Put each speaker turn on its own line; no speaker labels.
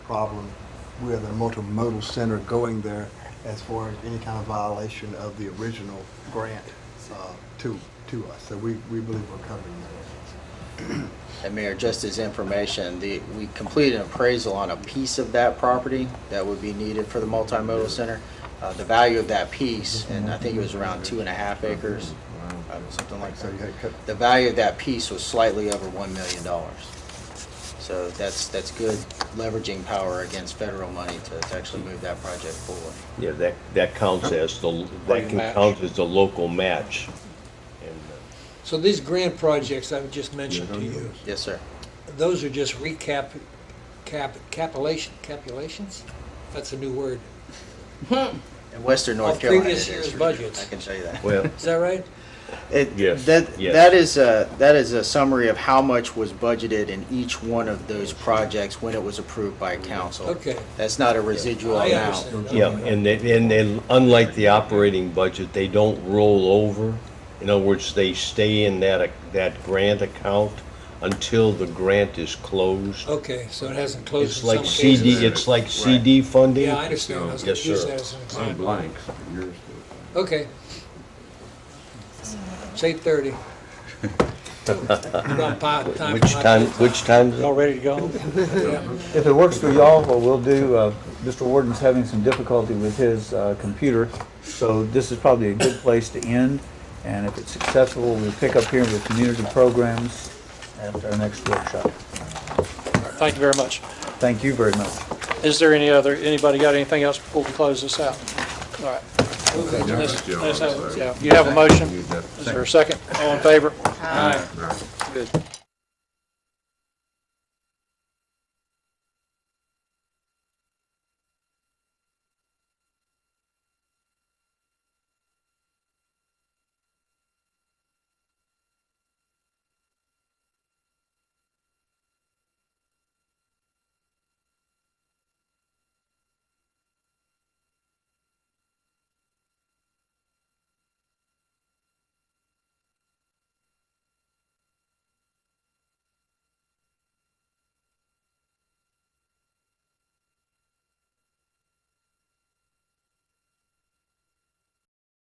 problem with a multimodal center going there as far as any kind of violation of the original grant uh, to, to us. So we, we believe we're covering that.
And Mayor, just as information, the, we completed an appraisal on a piece of that property that would be needed for the multimodal center. Uh, the value of that piece, and I think it was around two and a half acres, uh, something like
So you
that.
had cut,
The value of that piece was slightly over one million dollars. So that's, that's good leveraging power against federal money to, to actually move that project forward.
Yeah, that, that counts as the, that can
match.
count as the local match. And, uh,
So these grant projects I've just mentioned to you,
Yes, sir.
those are just recap, cap, capulation, capulations? That's a new word.
In western North
Of
Carolina.
previous
it is,
year's
for sure.
budgets.
I can tell you that.
Well,
Is that right?
It,
Yes,
That,
yes.
that is a, that is a summary of how much was budgeted in each one of those projects when it was approved by council.
Okay.
That's not a residual
I
amount.
understand.
Oh. yeah, and they, and they, unlike the operating budget, they don't roll over. In other words, they stay in that, ac- that grant account until the grant is closed.
Okay, so it hasn't Oh, closed
It's
in some
like CD,
cases.
it's like CD funding.
Yeah, I understand. I was
Yes,
gonna use
sir.
that as an
Mine
example.
blanks, but yours
Okay. It's eight thirty.
Which time, which time?
Y'all ready to go?
If it works for y'all, what we'll do, uh, Mr. Warden's having some difficulty with his uh, computer, so this is probably a good place to end, and if it's successful, we'll pick up here with community programs at our next workshop.
Thank you very much.
Thank you very much.
Is there any other, anybody got anything else before we close this out? All right. Let's-
is.
let's have- yeah. You have a motion? Is there a second? All in favor? Aye. Good.